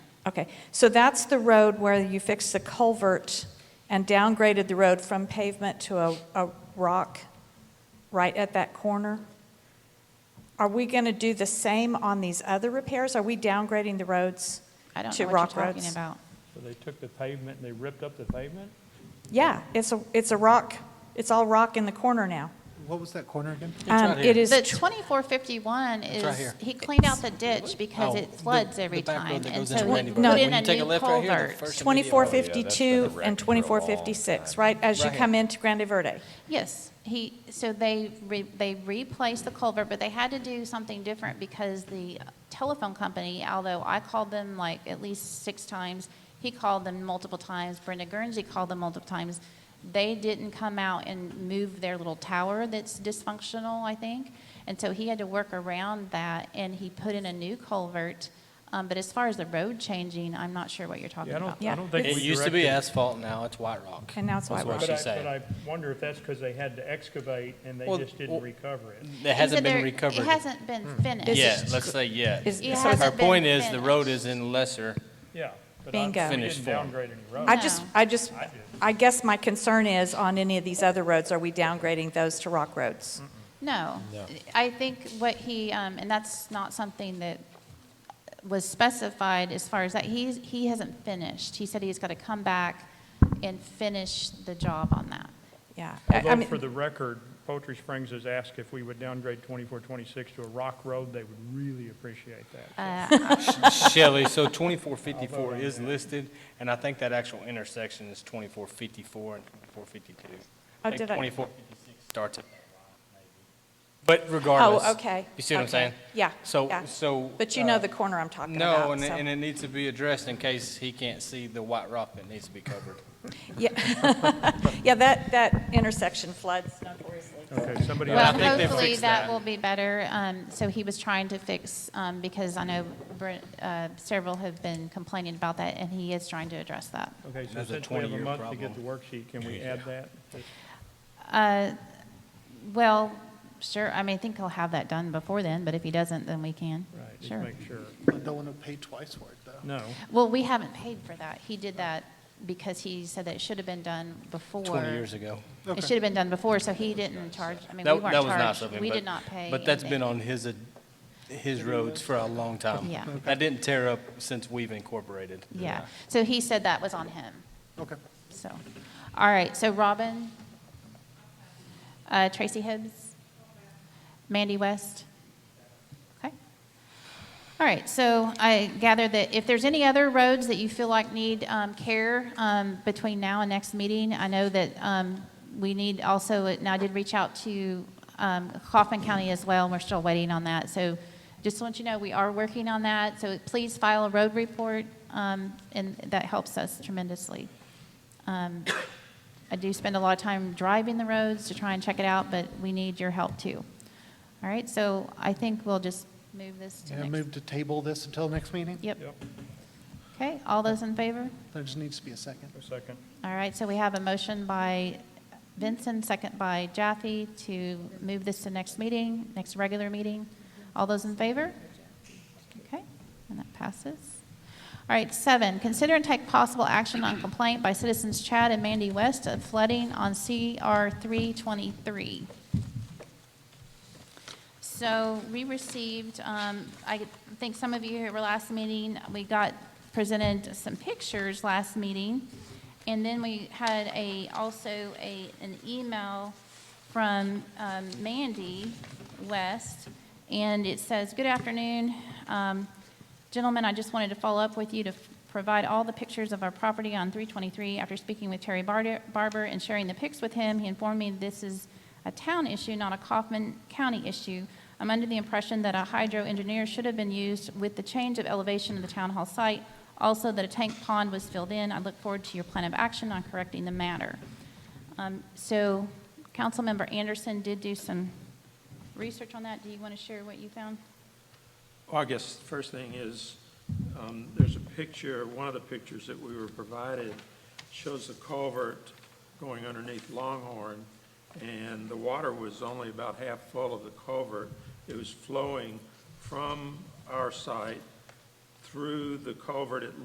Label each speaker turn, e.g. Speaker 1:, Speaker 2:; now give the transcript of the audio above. Speaker 1: Okay, so that's the road where you fixed the culvert and downgraded the road from pavement to a, a rock right at that corner? Are we going to do the same on these other repairs? Are we downgrading the roads
Speaker 2: I don't
Speaker 1: to
Speaker 2: know what you're
Speaker 1: rock roads?
Speaker 2: talking about.
Speaker 3: So they took the pavement and they ripped up the pavement?
Speaker 1: Yeah, it's a, it's a rock, it's all rock in the corner now.
Speaker 4: What was that corner again?
Speaker 1: Um, It is
Speaker 5: Oh,
Speaker 2: The 2451
Speaker 6: It's right
Speaker 2: is,
Speaker 6: here.
Speaker 2: he cleaned out the ditch because
Speaker 6: Oh,
Speaker 2: it
Speaker 6: the-
Speaker 2: floods
Speaker 6: the
Speaker 2: every
Speaker 6: back road
Speaker 2: time.
Speaker 6: that
Speaker 2: And
Speaker 6: goes
Speaker 2: so
Speaker 6: into
Speaker 2: he
Speaker 1: Randyburg.
Speaker 2: put
Speaker 1: No,
Speaker 2: in
Speaker 1: when
Speaker 2: a
Speaker 6: you take a
Speaker 2: new
Speaker 6: left right here, the
Speaker 2: culvert.
Speaker 6: first-
Speaker 5: Oh, yeah,
Speaker 1: 2452
Speaker 5: that's been
Speaker 1: and
Speaker 5: a wreck for a long
Speaker 1: 2456,
Speaker 5: time.
Speaker 1: right, as you
Speaker 6: Right.
Speaker 1: come into Grande Verde?
Speaker 2: Yes, he, so they, re- they replaced the culvert, but they had to do something different because the telephone company, although I called them like at least six times, he called them multiple times, Brenda Guernsey called them multiple times, they didn't come out and move their little tower that's dysfunctional, I think. And so he had to work around that, and he put in a new culvert. Um, But as far as the road changing, I'm not sure what you're talking
Speaker 3: Yeah, I
Speaker 2: about.
Speaker 3: don't, I don't think we
Speaker 6: It used to be
Speaker 3: directed-
Speaker 6: asphalt, now it's white rock.
Speaker 1: And now it's
Speaker 6: That's
Speaker 1: white
Speaker 6: what
Speaker 1: rock.
Speaker 3: But
Speaker 6: she
Speaker 3: I,
Speaker 6: said.
Speaker 3: but I wonder if that's because they had to excavate and they
Speaker 6: Well,
Speaker 3: just didn't
Speaker 6: well-
Speaker 3: recover it.
Speaker 6: It
Speaker 2: He
Speaker 6: hasn't
Speaker 2: said
Speaker 6: been
Speaker 2: there-
Speaker 6: recovered.
Speaker 2: It hasn't been
Speaker 3: Hmm.
Speaker 2: finished.
Speaker 6: Yeah, let's say, yeah.
Speaker 1: Is-
Speaker 2: It
Speaker 1: so it's-
Speaker 2: hasn't
Speaker 6: Her
Speaker 2: been
Speaker 6: point is, the road
Speaker 2: finished.
Speaker 6: is in lesser,
Speaker 3: Yeah. but I-
Speaker 1: Bingo.
Speaker 3: We
Speaker 6: Finished
Speaker 3: didn't
Speaker 6: form.
Speaker 3: downgrade any
Speaker 1: I
Speaker 3: roads.
Speaker 1: just,
Speaker 2: No.
Speaker 1: I just,
Speaker 3: I do.
Speaker 1: I guess my concern is, on any of these other roads, are we downgrading those to rock roads?
Speaker 2: No. I think what he, um, and that's not something that was specified as far as that, he's, he hasn't finished. He said he's got to come back and finish the job on that.
Speaker 1: Yeah. I- I
Speaker 3: Although
Speaker 1: mean, oh,
Speaker 3: for the record, Poultry Springs has asked if we would downgrade 2426 to a rock road, they would really appreciate that.
Speaker 1: Uh,
Speaker 6: Shelley, so 2454 is listed, and I think that actual intersection is 2454 and 2452.
Speaker 1: Oh,
Speaker 6: I think
Speaker 1: did I-
Speaker 6: 2456 starts at, but regardless.
Speaker 1: Oh, okay,
Speaker 6: You see what I'm
Speaker 1: okay.
Speaker 6: saying?
Speaker 1: Yeah,
Speaker 6: So,
Speaker 1: yeah.
Speaker 6: so.
Speaker 1: But you know
Speaker 6: uh,
Speaker 1: the corner I'm talking about,
Speaker 6: No, and it-
Speaker 1: so-
Speaker 6: and it needs to be addressed in case he can't see the white rock that needs to be covered.
Speaker 1: Yeah, yeah, that, that intersection floods notoriously.
Speaker 3: Okay, somebody
Speaker 2: Well,
Speaker 3: else,
Speaker 6: think they
Speaker 2: hopefully
Speaker 6: fixed
Speaker 2: that
Speaker 6: that.
Speaker 2: will be better. Um, So he was trying to fix, um, because I know Br- uh, several have been complaining about that, and he is trying to address that.
Speaker 3: okay, so
Speaker 6: That's a
Speaker 3: since we have a
Speaker 6: 20-year
Speaker 3: month to get the
Speaker 6: problem.
Speaker 3: worksheet, can we add that?
Speaker 2: Uh, Well, sure, I mean, I think he'll have that done before then, but if he doesn't, then we can.
Speaker 3: Right, just
Speaker 2: Sure.
Speaker 3: make sure.
Speaker 4: I don't want to pay twice for it, though.
Speaker 3: No,
Speaker 2: Well, we haven't paid for that. He did that because he said that it should have been done before.
Speaker 6: 20 years ago.
Speaker 2: It should have been done before, so he didn't charge, I mean, we
Speaker 6: That
Speaker 2: weren't
Speaker 6: that was not
Speaker 2: charged.
Speaker 6: something.
Speaker 2: We
Speaker 6: but-
Speaker 2: did not pay.
Speaker 6: But that's been
Speaker 2: anything.
Speaker 6: on his, uh, his roads for a long time.
Speaker 2: Yeah. Okay.
Speaker 6: That didn't tear up since we've incorporated.
Speaker 2: Yeah, so he said that was on him,
Speaker 4: Okay.
Speaker 2: so. All right, so Robin, uh, Tracy Hibbs, Mandy West. Okay. All right, so I gather that if there's any other roads that you feel like need um, care um, between now and next meeting, I know that um, we need also, and I did reach out to um, Kaufman County as well, and we're still waiting on that. So just to let you know, we are working on that, so please file a road report, um, and that helps us tremendously. Um, I do spend a lot of time driving the roads to try and check it out, but we need your help too. All right, so I think we'll just move this to
Speaker 4: Can I
Speaker 2: next.
Speaker 4: move to table this until next meeting?
Speaker 2: Yep.
Speaker 3: yep,
Speaker 2: Okay, all those in favor?
Speaker 4: There just needs to be a second.
Speaker 3: a second.
Speaker 2: All right, so we have a motion by Vincent, second by Jaffe, to move this to next meeting, next regular meeting. All those in favor? Okay, and that passes. All right, seven, consider and take possible action on complaint by citizens Chad and Mandy West of flooding on CR 323. So we received, um, I think some of you here were last meeting, we got presented some pictures last meeting. And then we had a, also a, an email from um, Mandy West. And it says, good afternoon. Um, Gentlemen, I just wanted to follow up with you to f- provide all the pictures of our property on 323. After speaking with Terry Barter- Barber and sharing the pics with him, he informed me this is a town issue, not a Kaufman County issue. I'm under the impression that a hydro engineer should have been used with the change of elevation of the town hall site, also that a tank pond was filled in. I look forward to your plan of action on correcting the matter. Um, So, Councilmember Anderson did do some research on that. Do you want to share what you found?
Speaker 7: Well, I guess the first thing is, um, there's a picture, one of the pictures that we were provided shows the culvert going underneath Longhorn, and the water was only about half full of the culvert. It was flowing from our site through the culvert at